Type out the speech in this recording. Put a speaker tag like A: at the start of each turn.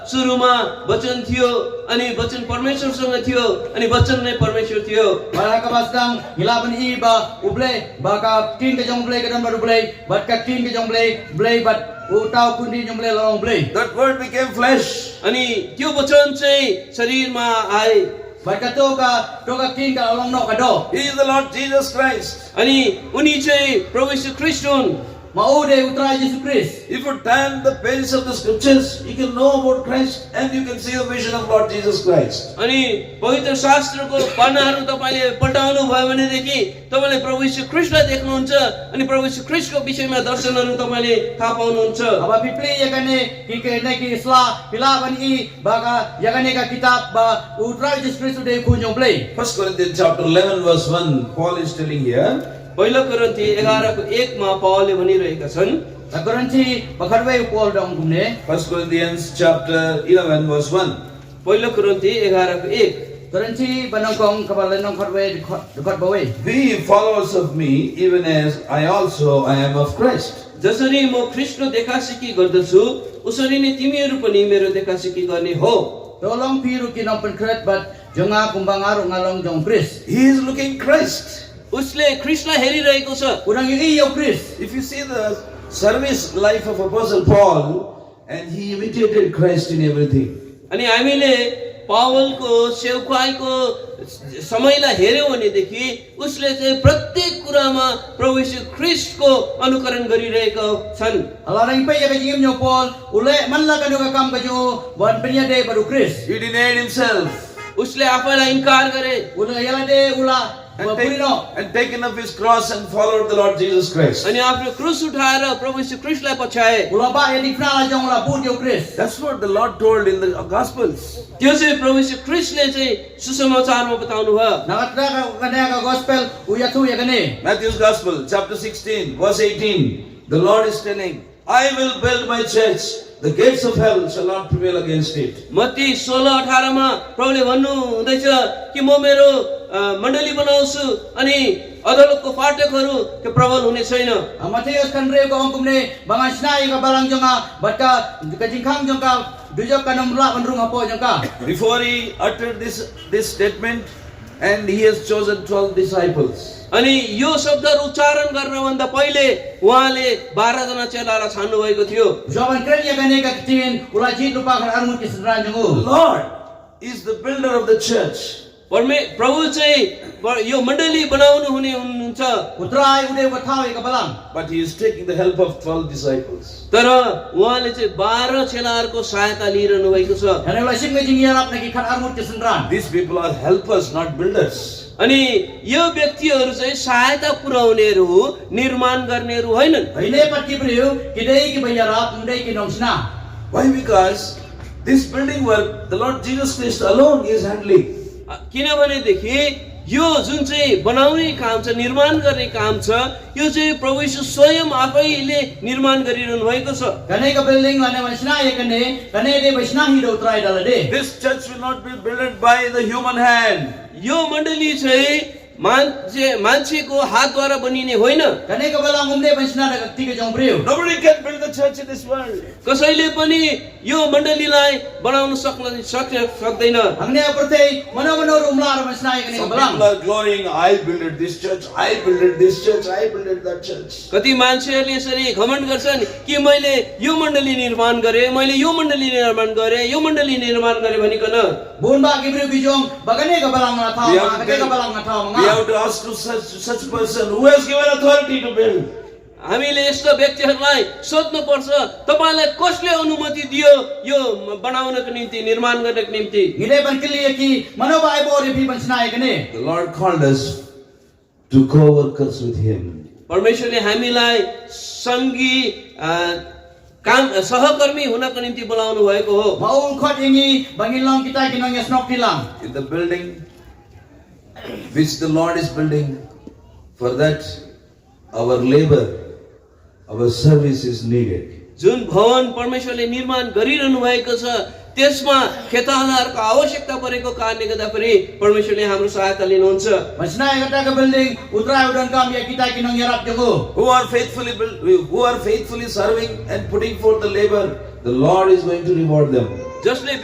A: सुरुमा वचन थियो अनि वचन परमेश्वरसँग थियो अनि वचन नै परमेश्वर थियो
B: Wala ka ba sang hilaban iba ublay baka king ka jong blay ka dan baru blay bat ka king ka jong blay blay bat utaw kundi jong blay lorong blay
C: That word became flesh.
A: अनि त्यो वचन चाहिँ शरीरमा आए
B: bat ka to ka to ka king ka lorong no ka do
C: He is the Lord Jesus Christ.
A: अनि उनी चाहिँ प्रभु यीशु ख्रिस्ट हुन्
B: maude utra Jesus Christ
C: If you turn the pages of the scriptures, you can know about Christ and you can see the vision of Lord Jesus Christ.
A: अनि पवित्र शास्त्रको पानाहरू तपाईँले पल्टाउनु भयो भनेदेखि तपाईँले प्रभु यीशु ख्रिस्टलाई देख्नुहुन्छ अनि प्रभु यीशु ख्रिस्टको विषयमा दर्शनहरू तपाईँले थाहा पाउनुहुन्छ
B: aba pipli yakane ya kan ki ke na ki isla hilaban i ya baka yakane ka kitab ba utra Jesus Christ de ku jong blay
C: 1 Corinthians chapter 11 verse 1, Paul is telling here,
A: पहिलो कुरन्ती एघारको एकमा पावलले भनिरहेका छन्
B: ta garanti bakarwe ko dong kumne
C: 1 Corinthians chapter 11 verse 1.
A: पहिलो कुरन्ती एघारको एक
B: garanti banong kong kabalan nong karwe dekat bawe
C: Be followers of me, even as I also I am of Christ.
A: जसरी म कृष्ण देखासेकी गर्दछु उसरी नै तिमीहरू पनि मेरो देखासेकी गर्ने हो
B: Tolong piru kinong penkret bat jonga kumbang aru ngalong jong Chris.
C: He is looking Christ.
A: उसले कृष्णलाई हेरिरहेको छ
B: Unang ini yo Chris.
C: If you see the service life of Apostle Paul, and he imitated Christ in everything.
A: अनि हामीले पावलको सेवकाईको समयलाई हेऱ्यौँ भनेदेखि उसले चाहिँ प्रत्येक कुरामा प्रभु यीशु ख्रिस्टको अनुकरण गरिरहेका छन्
B: Ala rang pe ya ka jingim yo Paul, ule man la kanu ka kam ka yo wan penya de baru Chris.
C: He denied himself.
A: उसले आफैलाई इन्कार गरे
B: Una yala de ya lah ula
C: and,
B: wa
C: take,
B: purino.
C: and taken up his cross and followed the Lord Jesus Christ.
A: अनि आफ्नो क्रुस उठाएर प्रभु यीशु ख्रिस्टलाई पछ्याए
B: Ula ba ya dikna la jong la put yo Chris.
C: That's what the Lord told in the Gospels.
A: त्यो चाहिँ प्रभु यीशु ख्रिस्टले चाहिँ सुसमाचारमा बताउनु भयो
B: Nakatra ka kana ka gospel uya tu ya kane.
C: Matthew's Gospel, chapter 16, verse 18. The Lord is telling, I will build my church, the gates of hell shall not prevail against it.
A: Matthew सोह्र अठारमा प्रभुले भन्नु हुँदैछ कि म मेरो a, मण्डली बनाउँछु अनि अदालतको फाटकहरू त्यो प्रबल हुने छैन
B: Amateus kan re ko ang kumne bangan snai ka balang jonga bat ka ka jingkang jong ka dujok ka nomla ban rung apo jong ka.
C: Before he uttered this, this statement, and he has chosen 12 disciples.
A: अनि यो शब्दहरू उच्चारण गर्नभन्दा पहिले उहाँले बाह्रजना चेलालाई छान्नुभएको थियो
B: Jawaban keren ya kane ka tin ula jin lupa kan armu kisran jong u.
C: The Lord is the builder of the church.
A: परमे प्रभु चाहिँ ब- यो मण्डली बनाउनु हुने हुनुहुन्छ
B: Utrai udah bertahu ke balang.
C: But he is taking the help of 12 disciples.
A: तर उहाँले चाहिँ बाह्र चेलाहरूको सहायता लिइरहनु भएको छ
B: Dan ulah sim ngejing yarap lagi kan armut ke sendran.
C: These people are helpers, not builders.
A: अनि यो व्यक्तिहरू चाहिँ सहायता पुर्याउनेहरू हो निर्माण गर्नेहरू होइनन्
B: Ini pat kibriu kidei ki bayarap mudai ki nomsna.
C: Why? Because this building work, the Lord Jesus Christ alone is handling.
A: किनभनेदेखि यो जुन चाहिँ बनाउने काम छ निर्माण गर्ने काम छ यो चाहिँ प्रभु यीशु स्वयं आफैले निर्माण गरिरहनु भएको छ
B: Kane ka building lane wansna ya kane kane de basna hi do utrai dala de.
C: This church will not be built by the human hand.
A: यो मण्डली चाहिँ मान्छे मान्छेको हातद्वारा बनिने होइन
B: Kane ka balang umde basna da kati ka jong briu.
C: Nobody can build the church in this world.
A: कसैले पनि यो मण्डलीलाई बनाउन सक्न सक् सक्दैन
B: Hangne aperte mano mano rumla ar basna ya kane ka
C: Some
B: balang.
C: people are glorying, I built this church, I built this church, I built that church.
A: कति मान्छेहरूले यसरी घमण्ड गर्छन् कि मैले यो मण्डली निर्माण गरेँ मैले यो मण्डली निर्माण गरेँ यो मण्डली निर्माण गरेँ भनिकन
B: Bun ba kibriu bijong bagane ka balang na thaw
C: We
B: ma
C: have, to
B: kane ka balang na thaw
C: tell- we
B: ma.
C: have to ask to such, such person who has given authority to build.
A: हामीले यस्ता व्यक्तिहरूलाई सोध्नुपर्छ तपाईँलाई कसले अनुमति दियो यो बनाउनको निम्ति निर्माण गर्नको निम्ति
B: Ngide ban kili ki mano ba ai bo ri basna ya kane.
C: The Lord called us to co workers with Him.
A: परमेश्वरले हामीलाई सङ्गी अ, काम सहकर्मी हुनको निम्ति बोलाउनु भएको हो
B: Maul kot ini bangin long kita ya kinong yasnok tilang.
C: in the building which the Lord is building. For that, our labor, our service is needed.
A: जुन भवन परमेश्वरले निर्माण गरिरहनु भएको छ त्यसमा खेतालाहरूको आवश्यकता परेको कारणले गर्दाखेरि परमेश्वरले हाम्रो सहायता लिनुहुन्छ
B: Masna yang kata ke building, utra udan kam ya kita kinong yarap jogo.
C: Who are faithfully build, who are faithfully serving and putting forth the labor, the Lord is going to reward them.
A: जसले